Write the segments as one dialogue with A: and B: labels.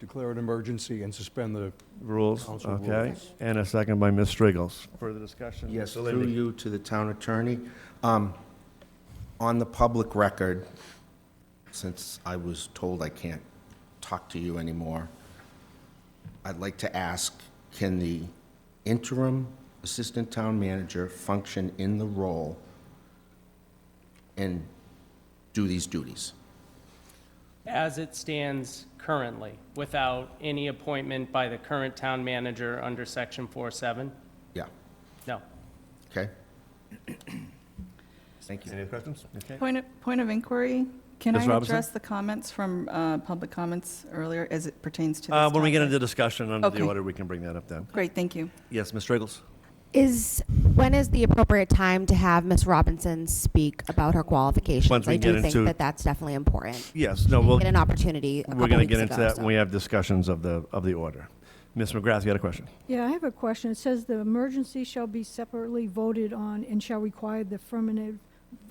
A: declare an emergency and suspend the,
B: Rules,
A: Council rules.
B: okay? And a second by Ms. Strigels. Further discussion?
C: Yes, through you to the town attorney. Um, On the public record, since I was told I can't talk to you anymore, I'd like to ask, can the interim assistant town manager function in the role and do these duties?
D: As it stands currently, without any appointment by the current town manager under section 47?
C: Yeah,
D: No.
C: okay? Thank you.
B: Any other questions? Okay.
E: Point of, point of inquiry, can
B: Ms.
E: I
B: Robinson?
E: address the comments from uh, public comments earlier as it pertains to this
B: Uh,
E: topic?
B: When we get into discussion under the
E: Okay.
B: order, we can bring that up then.
E: Great, thank you.
B: Yes, Ms. Strigels?
F: Is when is the appropriate time to have Ms. Robinson speak about her qualifications?
B: Once we
F: I do
B: get
F: think
B: into-
F: that that's definitely important.
B: Yes, no,
F: She didn't
B: we'll,
F: get an opportunity. A
B: we're
F: going to
B: get into that
F: so.
B: when we have discussions of the, of the order. Ms. McGrath, you had a question?
G: Yeah, I have a question. It says the emergency shall be separately voted on and shall require the affirmative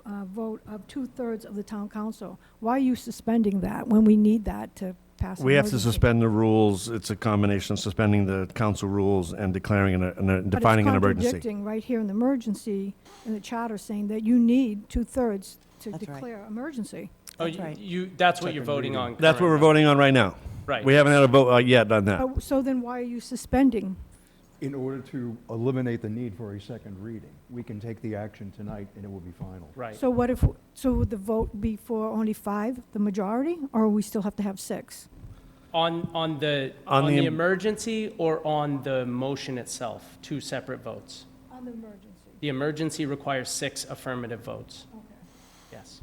G: uh, vote of two-thirds of the town council. Why are you suspending that when we need that to pass? an
B: We have to
G: emergency?
B: suspend the rules. It's a combination of suspending the council rules and declaring, an- an-
G: But it's
B: defining an emergency.
G: contradicting right here in the emergency, in the charter, saying that you need two-thirds to
E: That's right.
G: declare emergency.
D: Oh,
E: That's
D: you-
E: right.
D: you, that's what you're voting on currently?
B: That's what we're voting on right now.
D: Right.
B: We haven't had a vote uh, yet on that.
G: Oh, So then why are you suspending?
A: in order to eliminate the need for a second reading. We can take the action tonight and it will be final.
D: Right.
G: So what if, so would the vote be for only five, the majority, or we still have to have six?
D: On, on the,
B: On
D: on
B: the
D: the
B: em-
D: emergency or on the motion itself? Two separate votes.
G: On the emergency.
D: The emergency requires six affirmative votes. Yes.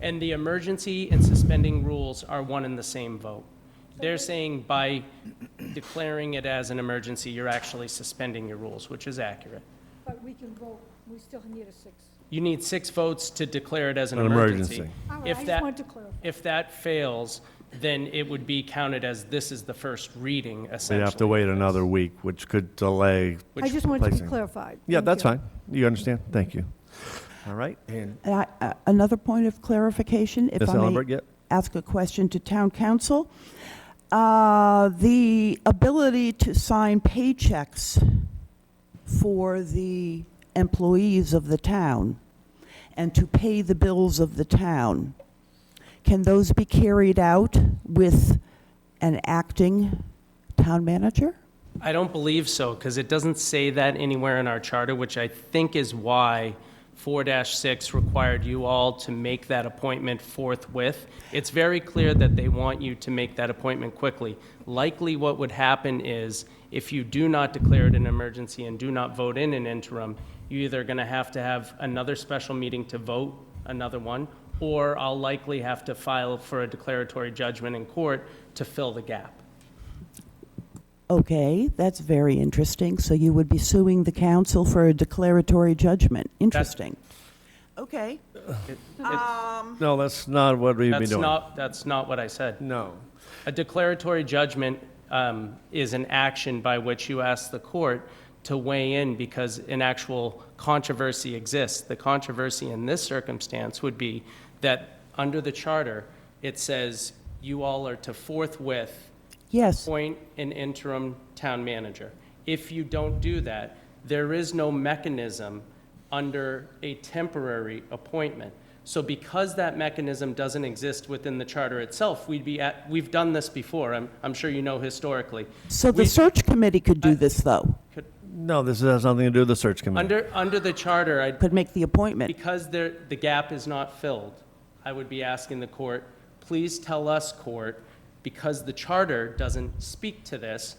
D: And the emergency and suspending rules are one and the same vote. They're saying by declaring it as an emergency, you're actually suspending your rules, which is accurate.
G: But we can vote, we still need a six.
D: You need six votes to declare it as an
B: An
D: emergency.
B: emergency.
G: All right, I
D: If
G: just
D: that-
G: wanted to clarify.
D: If that fails, then it would be counted as this is the first reading,
B: We'd
D: essentially.
B: have to wait another week, which could delay.
G: I just wanted to
B: placing.
G: be clarified.
B: Yeah,
G: Thank
B: that's
G: you.
B: fine. You understand? Thank you. All right.
C: And
H: And I- uh, Another point of clarification, if
B: Ms.
H: I may. Uh-huh.
B: Ellenberg, yep.
H: Ask a question to town council. Uh, The ability to sign paychecks for the employees of the town and to pay the bills of the town, can those be carried out with an acting town manager?
D: I don't believe so, because it doesn't say that anywhere in our charter, which I think is why 4-6 required you all to make that appointment forthwith. It's very clear that they want you to make that appointment quickly. Likely what would happen is, if you do not declare it an emergency and do not vote in an interim, you're either going to have to have another special meeting to vote another one, or I'll likely have to file for a declaratory judgment in court to fill the gap.
H: Okay, that's very interesting. So you would be suing the council for a declaratory judgment. Interesting. Okay.
B: No, that's not what we've been
D: That's
B: doing.
D: not, that's not what I said.
B: No.
D: A declaratory judgment um, is an action by which you ask the court to weigh in because an actual controversy exists. The controversy in this circumstance would be that under the charter, it says you all are to forthwith
H: Yes.
D: appoint an interim town manager. If you don't do that, there is no mechanism under a temporary appointment. So because that mechanism doesn't exist within the charter itself, we'd be at, we've done this before, I'm, I'm sure you know historically.
H: So the
D: We- Uh,
H: search committee could do this, though,
B: No, this has nothing to do with the search committee.
D: Under, under the charter, I,
H: could make the appointment.
D: because there, the gap is not filled, I would be asking the court, please tell us, court, because the charter doesn't speak to this,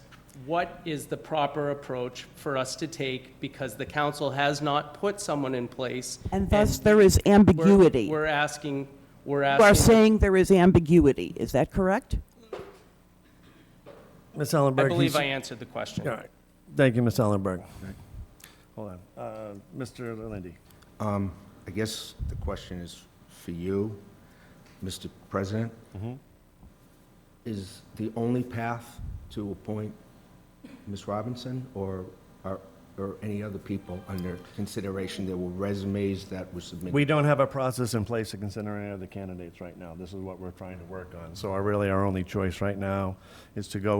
D: what is the proper approach for us to take because the council has not put someone in place?
H: And thus,
D: we're-
H: there is ambiguity. You
D: We're asking, we're
H: are
D: asking,
H: saying there is ambiguity. Is that correct?
B: Ms.
D: I
B: Ellenberg.
D: believe
B: he's-
D: I answered the question.
B: All right. Thank you, Ms. Ellenberg. Hold on. Uh, Mr. Lindy.
C: Um, I guess the question is for you, Mr. President. Is the only path to appoint Ms. Robinson or, or or any other people under consideration? There were resumes that were submitted.
B: We don't have a process in place to consider any of the candidates right now. This is what we're trying to work on. So our- really, our only choice right now is to go